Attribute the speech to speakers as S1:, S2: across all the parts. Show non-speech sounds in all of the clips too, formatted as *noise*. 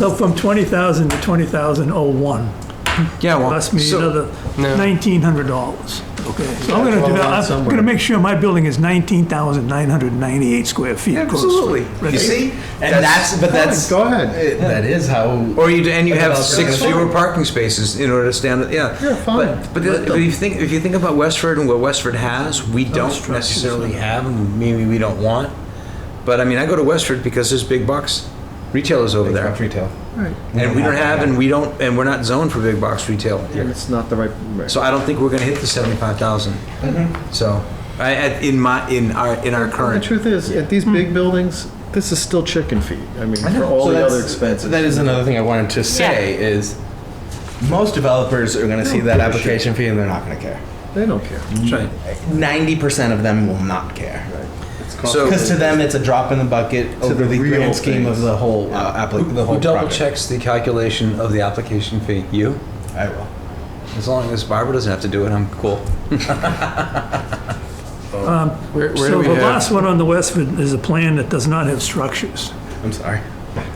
S1: So from 20,000 to 20,001,
S2: Yeah, well,
S1: cost me
S3: So-
S1: another
S3: No.
S1: $1,900. Okay, so I'm gonna do
S4: Well,
S1: that,
S4: that's
S1: I'm
S4: somewhere.
S1: gonna make sure my building is 19,998 square feet. gross.
S3: Absolutely. You
S1: Right.
S3: see?
S4: And that's, but that's.
S3: Go
S4: ahead. That is how.
S2: or you, and you have
S4: That's
S2: six
S4: fine.
S2: fewer parking spaces in order to stand, yeah.
S4: Yeah, fine.
S2: But, but the- but if you think, if you think about Westford and what Westford has, we don't necessarily have, and maybe we don't want. But I mean, I go to Westford because there's big box retailers over there.
S4: Retail.
S2: And we don't have, and we don't, and we're not zoned for big box retail here.
S5: It's not the right. right.
S2: So I don't think we're gonna hit the seventy-five thousand.
S4: Mm-hmm.
S2: So, I, I- in my, in our, in our
S5: The
S2: current,
S5: truth is, at these big buildings, this is still chicken feet. I mean, for all the other expenses.
S4: That is another thing I wanted to say is most developers are going to see that application fee and they're not going to care.
S5: They don't care.
S2: that's right.
S4: 90% of them will not care.
S2: So,
S4: Because to them, it's a drop in the bucket to over
S5: the
S4: the,
S5: real
S4: grand scheme of
S5: things.
S4: the whole uh, applic- the whole
S2: who double
S4: project.
S2: checks the calculation of the application fee? You?
S4: I will.
S2: As long as Barbara doesn't have to do it, I'm cool.
S6: Where, where do
S1: So
S6: we
S1: the
S6: have?
S1: last one on the Westford is a plan that does not have structures.
S4: I'm sorry.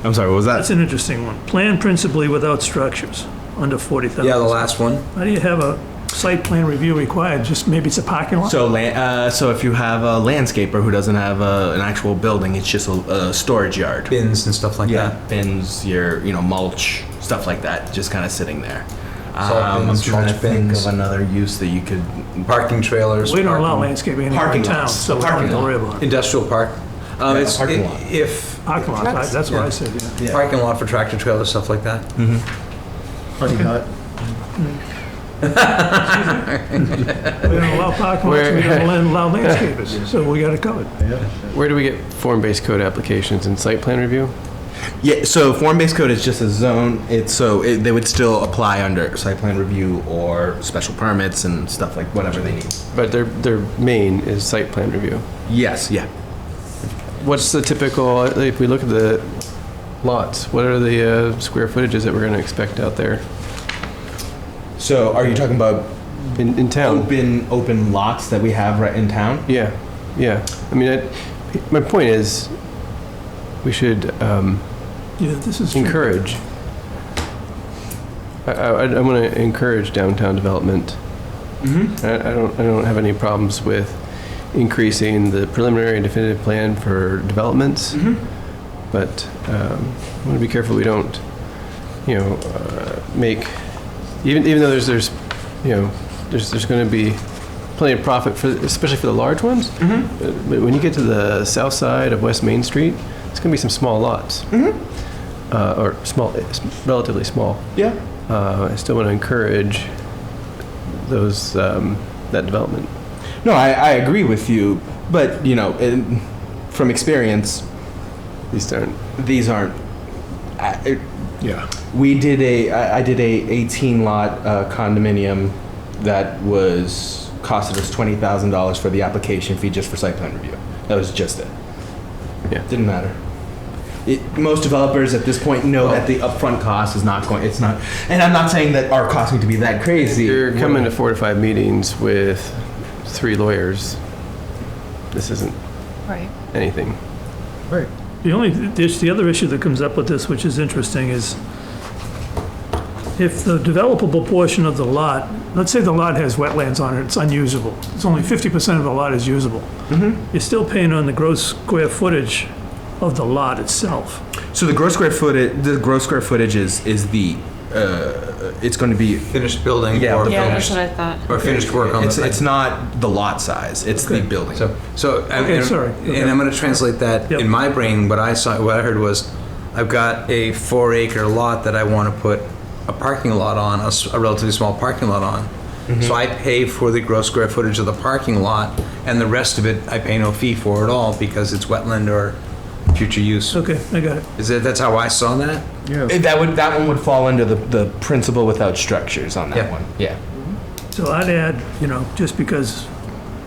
S4: I'm sorry. What was
S1: That's
S4: that?
S1: an interesting one. Plan principally without structures, under 40,000.
S2: Yeah, the last one.
S1: How do you have a site plan review required? Just maybe it's a parking lot?
S4: So, lan- uh, so if you have a landscaper who doesn't have a, an actual building, it's just a, a storage yard.
S2: Bins and stuff like
S4: yeah,
S2: that.
S4: bins, your you know mulch, stuff like that, just kind of sitting there.
S2: Salt
S4: Um,
S2: bins,
S4: I'm trying to
S2: mulch
S4: think
S2: bins.
S4: of another use that you could.
S2: Parking trailers.
S1: We don't allow
S2: parking-
S1: landscaping anywhere in
S4: Parking
S1: town,
S4: lots.
S1: so we don't have
S4: Parking
S1: to
S4: lot.
S1: worry about it.
S2: Industrial park. Um,
S4: Yeah,
S2: it's,
S4: parking
S2: i-
S4: lot.
S2: if,
S1: Parking lot, I- that's what I said, yeah.
S4: Yeah.
S2: parking lot for tractor trailers, stuff like that.
S5: Honey hut.
S1: We don't allow parking lots, we don't *laughs* allow landscapers, so we got it covered.
S6: Where do we get form-based code applications in site plan review?
S4: Yeah, so form-based code is just a zone. It's so it, they would still apply under site plan review or special permits and stuff like whatever they need.
S6: But their their main is site plan review.
S4: Yes, yeah.
S6: What's the typical? uh, If we look at the lots, what are the uh, square footages that we're going to expect out there
S4: So are you talking about
S6: in, in town?
S4: open open lots that we have right in town?
S6: Yeah, yeah. I mean, I, my point is, we should um,
S1: Yeah, this is.
S6: encourage. I, I, I want to encourage downtown development. Mm-hmm. I, I don't, I don't have any problems with increasing the preliminary and definitive plan for developments. But um, I want to be careful we don't, you know, uh, make even even though there's there's, you know, there's there's going to be plenty of profit for especially for the large ones. But, but when you get to the south side of West Main Street, it's going to be some small lots uh, or small, relatively small.
S4: Yeah.
S6: Uh, I still want to encourage those um, that development.
S4: No, I, I agree with you, but you know, in, from experience,
S6: These aren't.
S4: these aren't. I, it,
S5: Yeah.
S4: we did a. I, I did a 18 lot uh, condominium that was costed us twenty thousand dollars for the application fee just for site plan review. That was just it.
S6: Yeah.
S4: Didn't matter. It, most developers at this point know that the upfront cost is not going. It's not, and I'm not saying that our costs need to be that crazy.
S6: You're coming to four to five meetings with three lawyers. This isn't
S7: Right.
S6: anything.
S5: Right.
S1: The only, there's the other issue that comes up with this, which is interesting, is if the developable portion of the lot, let's say the lot has wetlands on it, it's unusable. It's only 50% of the lot is usable. You're still paying on the gross square footage of the lot itself.
S4: So the gross square footage, the gross square footage is is the, uh, it's going to be.
S2: Finished building
S4: Yeah,
S2: or
S4: the
S7: Yeah, that's
S2: finished,
S7: what I thought.
S2: or finished work on the
S4: It's,
S2: thing.
S4: it's not the lot size. It's the building.
S2: So, so I'm,
S1: Okay,
S2: and,
S1: sorry.
S2: and I'm going to translate that
S1: Yep.
S2: in my brain. What I saw, what I heard was, I've got a four-acre lot that I want to put a parking lot on, a, s- a relatively small parking lot on.
S1: Mm-hmm.
S2: So I pay for the gross square footage of the parking lot, and the rest of it I pay no fee for at all because it's wetland or future use.
S1: Okay, I got it.
S2: Is that that's how I saw that?
S5: Yeah.
S4: Eh, that would that one would fall under the the principle without structures on that
S2: Yeah.
S4: one. Yeah.
S1: So I'd add, you know, just because,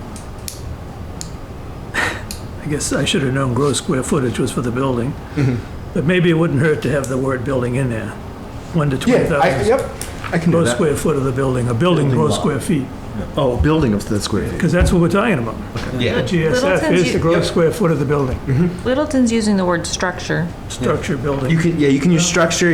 S1: *laughs* I guess I should have known gross square footage was for the building,
S4: Mm-hmm.
S1: but maybe it wouldn't hurt to have the word building in there. One to
S4: Yeah. I,
S1: 20,000
S4: yep. I can do
S1: gross
S4: that.
S1: square foot of the building, a building
S4: Building
S1: gross
S4: lot.
S1: square feet.
S5: Oh, building of that square feet.
S1: because that's what we're talking about.
S2: Yeah.
S1: GSF
S3: Littleton's
S1: is the
S3: u-
S1: gross square
S4: Mm-hmm.
S1: foot of the building,
S3: Littleton's using the word structure.
S1: structure, building.
S4: You can, yeah, you can use structure,